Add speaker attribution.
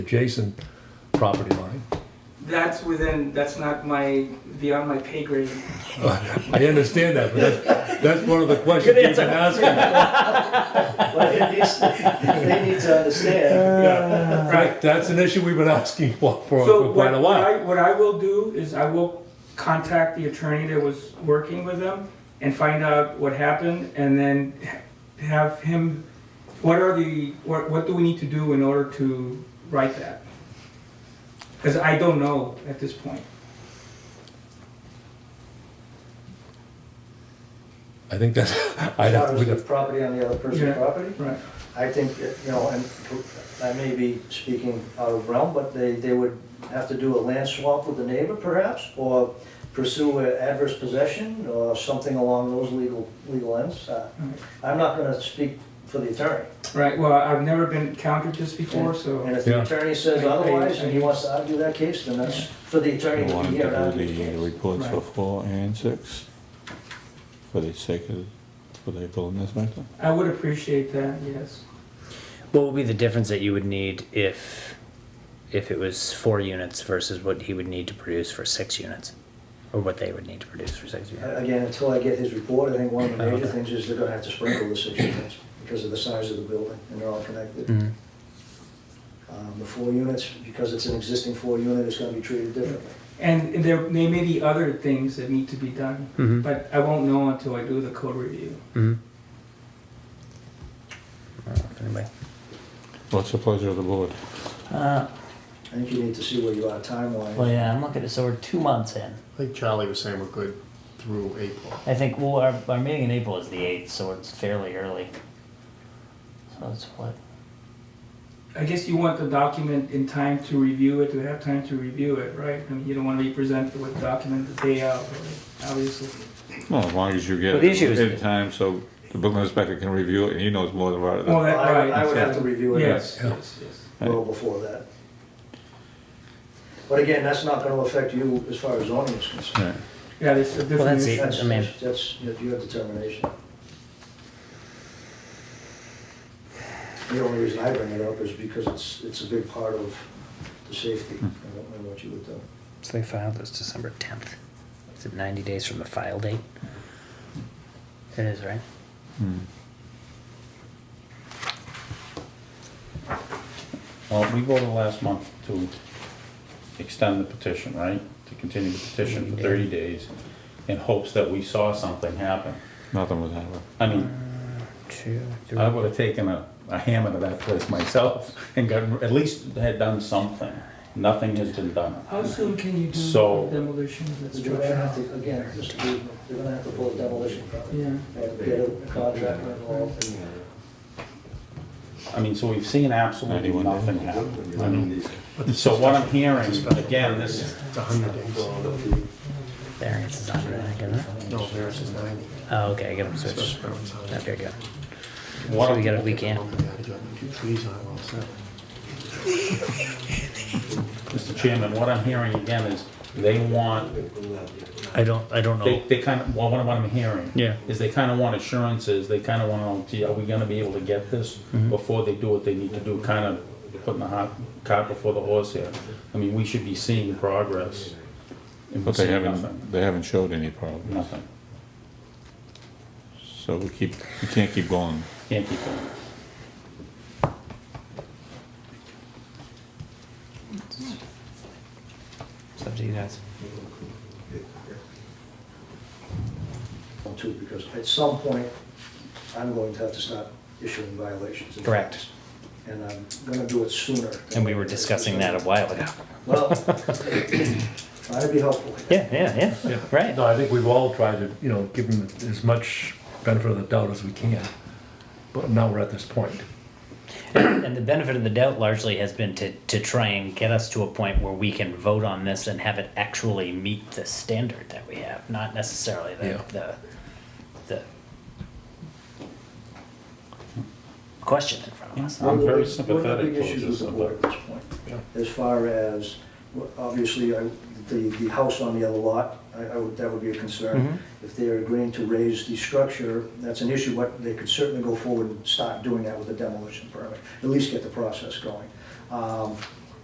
Speaker 1: adjacent property line.
Speaker 2: That's within, that's not my, beyond my pay grade.
Speaker 1: I understand that, but that's, that's one of the questions we've been asking.
Speaker 3: But at least they need to understand.
Speaker 2: Right.
Speaker 1: That's an issue we've been asking for, for
Speaker 2: So
Speaker 1: for quite
Speaker 2: what
Speaker 1: a
Speaker 2: what
Speaker 1: while.
Speaker 2: I, what I will do is I will contact the attorney that was working with them and find out what happened and then ha- have him, what are the, what, what do we need to do in order to write that? Because I don't know at this point.
Speaker 1: I think that's, I'd
Speaker 3: As
Speaker 1: have,
Speaker 3: far
Speaker 1: we'd
Speaker 3: as the
Speaker 1: have,
Speaker 3: property on the other person's
Speaker 2: Yeah.
Speaker 3: property,
Speaker 2: Right.
Speaker 3: I think, that, you know, and I may be speaking out of realm, but they, they would have to do a land swap with the neighbor perhaps, or pursue a adverse possession, or something along those legal, legal ends. Uh,
Speaker 2: Right.
Speaker 3: I'm not gonna speak for the attorney.
Speaker 2: Right, well, I've never been encountered this before, so,
Speaker 3: And if the
Speaker 1: Yeah.
Speaker 3: attorney says
Speaker 2: I- I-
Speaker 3: otherwise, and he
Speaker 2: I-
Speaker 3: wants to argue that case, then that's for the attorney
Speaker 4: I
Speaker 3: to
Speaker 4: wanted
Speaker 3: be here and
Speaker 4: to
Speaker 3: argue the
Speaker 4: do the
Speaker 3: case.
Speaker 4: reports for
Speaker 2: Right.
Speaker 4: four and six, for the sake of, for the building matter.
Speaker 2: I would appreciate that, yes.
Speaker 5: What would be the difference that you would need if if it was four units versus what he would need to produce for six units? Or what they would need to produce for six units?
Speaker 3: Again, until I get his report, I think one of the major
Speaker 5: Okay.
Speaker 3: things is they're gonna have to sprinkle the six units because of the size of the building, and they're all connected.
Speaker 5: Mhm.
Speaker 3: Um, The four units, because it's an existing four unit, it's gonna be treated differently.
Speaker 2: And there, there may be other things that need to be done,
Speaker 5: Mhm.
Speaker 2: but I won't know until I do the code review.
Speaker 5: Mhm. I don't know if anybody-
Speaker 4: What's the pleasure of the board?
Speaker 6: Uh,
Speaker 3: I think you need to see where you are
Speaker 6: well,
Speaker 3: timeline.
Speaker 6: yeah, I'm looking at, so we're two months in.
Speaker 7: I think Charlie was saying we're good through April.
Speaker 6: I think, well, our, our meeting in April is the 8th, so it's fairly early. So it's what?
Speaker 2: I guess you want the document in time to review it, to have time to review it, right? I mean, you don't want to be presented with a document the day out, right? obviously.
Speaker 4: Well, as long as you get
Speaker 5: Well, the
Speaker 4: it
Speaker 5: issue is-
Speaker 4: in time, so the building inspector can review it and he knows more about it.
Speaker 2: Well,
Speaker 4: than-
Speaker 2: that,
Speaker 3: I would- I
Speaker 2: right,
Speaker 3: would have to review it
Speaker 2: yes,
Speaker 1: Yeah.
Speaker 2: yes, yes.
Speaker 3: well before that. But again, that's not gonna affect you as far as zoning is concerned.
Speaker 4: Yeah.
Speaker 2: Yeah, there's a different
Speaker 5: that's
Speaker 2: issue.
Speaker 5: it.
Speaker 3: That's,
Speaker 5: I mean-
Speaker 3: that's, that's your determination. The only reason I bring it up is because it's, it's a big part of the safety and and what you would do.
Speaker 5: So they filed this December 10th. Is it 90 days from the file date? It is, right?
Speaker 4: Hmm.
Speaker 8: Well, we voted last month to extend the petition, right? To continue the petition for thirty days in hopes that we saw something happen.
Speaker 4: Nothing was happening.
Speaker 8: I mean,
Speaker 5: Two, three.
Speaker 8: I would have taken a, a hammer to that place myself and got, at least had done something. Nothing has been done.
Speaker 2: How soon can you do
Speaker 8: So-
Speaker 2: demolition of that
Speaker 3: They're gonna have
Speaker 2: structure?
Speaker 3: to, again, just to be- they're gonna have to pull a demolition permit
Speaker 2: Yeah,
Speaker 3: and get a contractor involved.
Speaker 8: I mean, so we've seen absolutely
Speaker 4: Anyone?
Speaker 8: nothing happen. I mean, so what I'm hearing, again, this is
Speaker 7: It's a hundred days.
Speaker 5: Variance is 100, I think, isn't it?
Speaker 7: No, theirs is ninety.
Speaker 5: Oh, okay, I get them switched.
Speaker 7: Special permit's a hundred.
Speaker 5: Okay, good.
Speaker 8: what
Speaker 5: So
Speaker 8: I'm
Speaker 5: we got a weekend.
Speaker 7: If you please, I will accept.
Speaker 8: Mr. Chairman, what I'm hearing again is they want,
Speaker 5: I don't, I don't
Speaker 8: they, they kind of, well, what I'm hearing
Speaker 5: Yeah.
Speaker 8: is they kind of want assurances, they kind of want, to know, gee, are we gonna be able to get this
Speaker 5: Mm-hmm.
Speaker 8: before they do what they need to do, kind of putting the hot cart before the horse here. I mean, we should be seeing progress. and we're
Speaker 4: But they
Speaker 8: seeing nothing.
Speaker 4: haven't, they haven't showed any problems.
Speaker 8: Nothing,
Speaker 4: So we keep, we can't keep going.
Speaker 8: can't keep going.
Speaker 5: It's up to you guys.
Speaker 3: on too, because at some point, I'm going to have to start issuing violations. and
Speaker 5: Correct.
Speaker 3: fines. And I'm gonna do it sooner. than-
Speaker 6: And we were discussing that a while ago.
Speaker 3: Well, I'd be helpful.
Speaker 6: Yeah, yeah, yeah, right.
Speaker 1: No, I think we've all tried to, you know, give them as much benefit of the doubt as we can. But now we're at this point.
Speaker 6: And the benefit of the doubt largely has been to, to try and get us to a point where we can vote on this and have it actually meet the standard that we have, not necessarily the,
Speaker 1: Yeah.
Speaker 6: the, the question in front of us.
Speaker 8: I'm very
Speaker 3: One of the
Speaker 8: sympathetic
Speaker 3: big issues with
Speaker 8: towards this,
Speaker 3: the board at
Speaker 8: but
Speaker 3: this point, as far as, well, obviously, I- the, the house on the other lot, I, I would, that would be a concern. If they're agreeing to raise the structure, that's an issue, but they could certainly go forward and start doing that with a demolition permit, at least get the process going. Um,